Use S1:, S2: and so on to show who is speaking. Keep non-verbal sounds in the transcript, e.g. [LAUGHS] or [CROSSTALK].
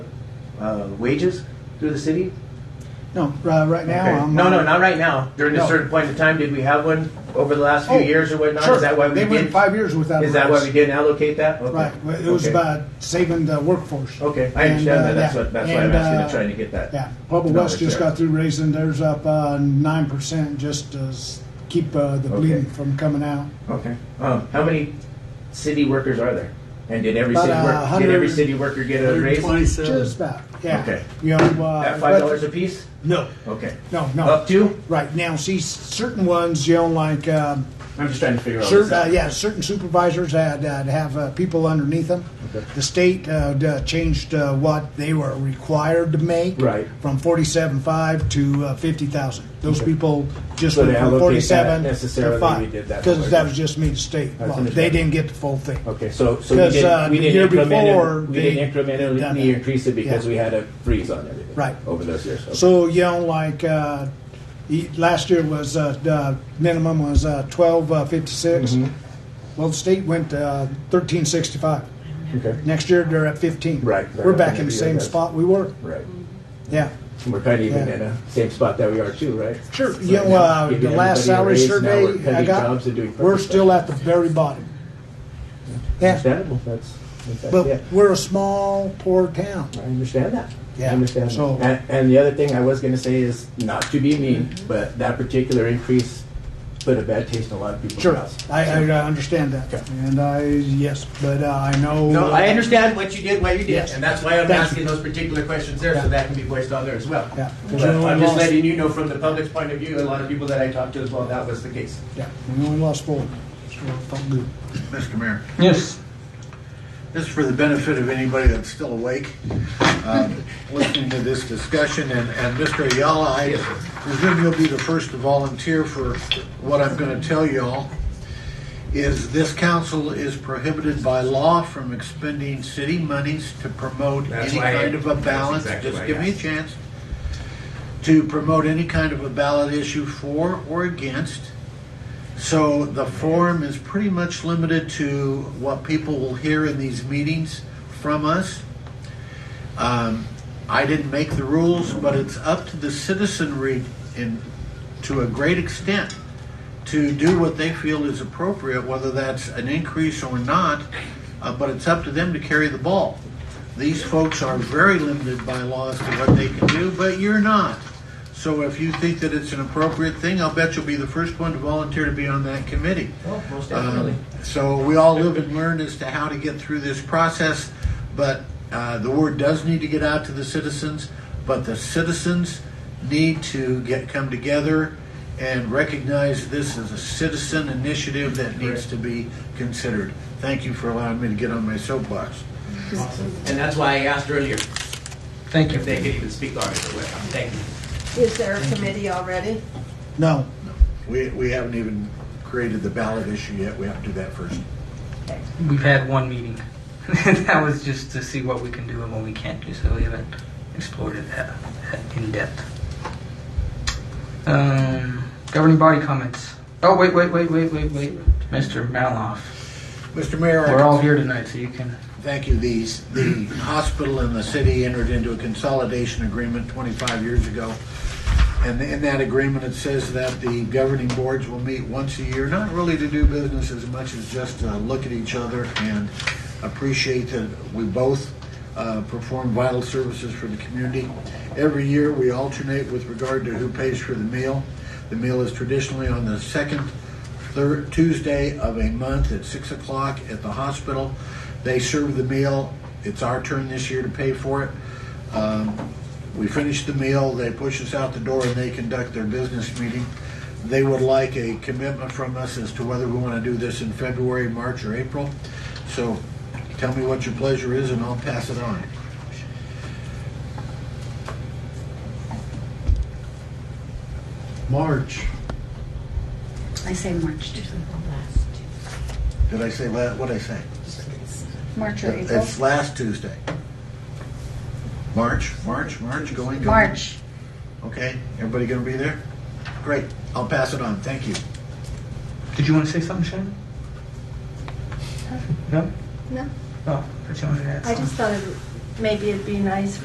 S1: uh, wages through the city?
S2: No, uh, right
S1: Okay.
S2: now, I'm.
S1: No, no, not right now. During a
S2: No.
S1: certain point in time, did we have one over the last few
S2: Oh,
S1: years or whatnot?
S2: Sure.
S1: Is that why we
S2: They went
S1: did?
S2: five years without. a
S1: Is that why
S2: raise.
S1: we didn't allocate that? Okay.
S2: Right, Well, it was
S1: Okay.
S2: about saving the workforce.
S1: Okay, I
S2: And,
S1: understand
S2: uh,
S1: that. That's
S2: yeah.
S1: what, that's why I'm
S2: And,
S1: asking
S2: uh,
S1: and trying to get that.
S2: Yeah, Pueblo
S1: No,
S2: West
S1: it's
S2: just
S1: there.
S2: got through raising theirs up uh, nine percent just to s- keep uh,
S1: Okay.
S2: the bleeding from coming out.
S1: Okay. Um, how many city workers are there? And did every
S2: About
S1: city
S2: a
S1: worker, did every
S2: hundred-
S1: city worker get a raise?
S2: Just about, yeah.
S1: Okay.
S2: You know, uh,
S1: At
S2: but-
S1: five dollars apiece?
S2: No,
S1: Okay.
S2: no, no.
S1: Up to?
S2: Right, now, see, certain ones, you know, like, um,
S1: I'm just trying to figure all this
S2: Certain, uh,
S1: out.
S2: yeah, certain supervisors had, uh have uh, people underneath them. The state uh, d- uh, changed uh, what they were required to make
S3: Right.
S2: from forty-seven five to uh, fifty thousand. Those
S3: Okay.
S2: people just
S3: So
S2: went
S3: they
S2: from
S3: allocate that
S2: forty-seven to
S3: necessarily,
S2: five
S3: we did that
S2: because
S3: for-
S2: that was just me to state.
S3: That's
S2: law. They
S3: understandable.
S2: didn't get the full thing.
S3: Okay, so, so we
S2: 'Cause, uh,
S3: didn't, we
S2: the
S3: didn't
S2: year before,
S3: incrementally, we didn't
S2: they- they've done
S3: incrementally
S2: that.
S3: increase it because
S2: Yeah.
S3: we had a freeze on everything.
S2: Right.
S3: Over those years. Okay.
S2: So you know, like uh, e- last year was uh, the minimum was uh, twelve uh, fifty-six.
S3: Mhm.
S2: Well, the state went uh, thirteen sixty-five.
S3: Okay,
S2: Next year, they're at 15.
S3: Right.
S2: We're back in the same
S3: Yes.
S2: spot we were.
S3: right.
S2: Yeah.
S3: And We're kind of even
S2: Yeah.
S3: in the same spot that we are too, right?
S2: Sure.
S3: Right
S2: You know,
S3: now,
S2: uh,
S3: giving
S2: the last
S3: everybody a
S2: salary
S3: raise, now we're
S2: survey I
S3: cutting
S2: got,
S3: jobs and doing
S2: we're
S3: purpose
S2: still
S3: stuff.
S2: at the very bottom. Yeah.
S3: Understandable, that's, that's- yeah.
S2: But we're a small, poor town.
S3: I understand that.
S2: Yeah,
S3: I understand that.
S2: so-
S3: And, and the other thing I was gonna say is, not to be mean,
S2: Mm-hmm.
S3: but that particular increase put a bad taste in a lot of people's
S2: Sure.
S3: mouths.
S2: I, I uh, understand that.
S3: Okay.
S2: And I, yes, but uh, I know.
S1: No, I understand what you did, why you did,
S2: Yes.
S1: and that's why I'm
S2: Thank you.
S1: asking those particular questions there, so
S2: Yeah.
S1: that can be voiced on there as well.
S2: Yeah.
S1: But I'm just letting you know from the public's point of view, a lot of people that I talked to as well, that was the case.
S2: Yeah. We only lost four. So it felt good.
S4: Mr. Mayor,
S5: Yes.
S4: this is for the benefit of anybody that's still awake, um, listening to this discussion, and, and Mr. Ayala, I presume you'll be the first to volunteer for what I'm gonna tell y'all, is this council is prohibited by law from expending city monies to promote
S1: That's
S4: any
S1: why I-
S4: kind of a
S1: that's
S4: balance.
S1: exactly why
S4: Just
S1: I
S4: give me a
S1: asked.
S4: chance. To promote any kind of a ballot issue for or against. So the forum is pretty much limited to what people will hear in these meetings from us. Um, I didn't make the rules, but it's up to the citizenry in, to a great extent to do what they feel is appropriate, whether that's an increase or not, uh, but it's up to them to carry the ball. These folks are very limited by laws to what they can do, but you're not. So if you think that it's an appropriate thing, I'll bet you'll be the first one to volunteer to be on that committee.
S2: Oh,
S1: Well, most
S4: Um, So we all live and learn as to how to get through this process, but uh, the word does need to get out to the citizens, but the citizens need to get, come together and recognize this is a citizen initiative that needs to be considered. Thank you for allowing me to get on my soapbox.
S1: And that's why I asked earlier
S5: Thank
S1: if they could even speak on it or what. Thank you.
S6: Is there a committee already?
S2: No.
S4: We, we haven't even created the ballot issue yet, we have to do that first.
S5: We've had one meeting. [LAUGHS] that was just to see what we can do and what we can't do, so we haven't explored it that, that in depth. Um, governing body comments. Oh, wait, wait, wait, wait, wait, wait. Mr. Maloff.
S4: Mr. Mayor, I
S5: We're all here tonight, so you can.
S4: Thank you. The, the hospital and the city entered into a consolidation agreement 25 years ago. And in that agreement, it says that the governing boards will meet once a year, not really to do business as much as just to look at each other and appreciate that we both uh, perform vital services for the community. Every year, we alternate with regard to who pays for the meal. The meal is traditionally on the second third Tuesday of a month at six o'clock at the hospital. They serve the meal. It's our turn this year to pay for it. Um, we finish the meal, they push us out the door, and they conduct their business meeting. They would like a commitment from us as to whether we want to do this in February, March, or April. So tell me what your pleasure is, and I'll pass it on.
S2: March.
S7: I say March, too.
S4: Did I say la What did I say?
S7: March or April?
S4: It's last Tuesday. March, March, March, going, going.
S7: March.
S4: Okay, everybody gonna be there? Great, I'll pass it on, thank you.
S5: Did you want to say something, Shannon? No?
S6: No,
S5: Oh, I thought you wanted to add
S6: I just thought it, maybe it'd be nice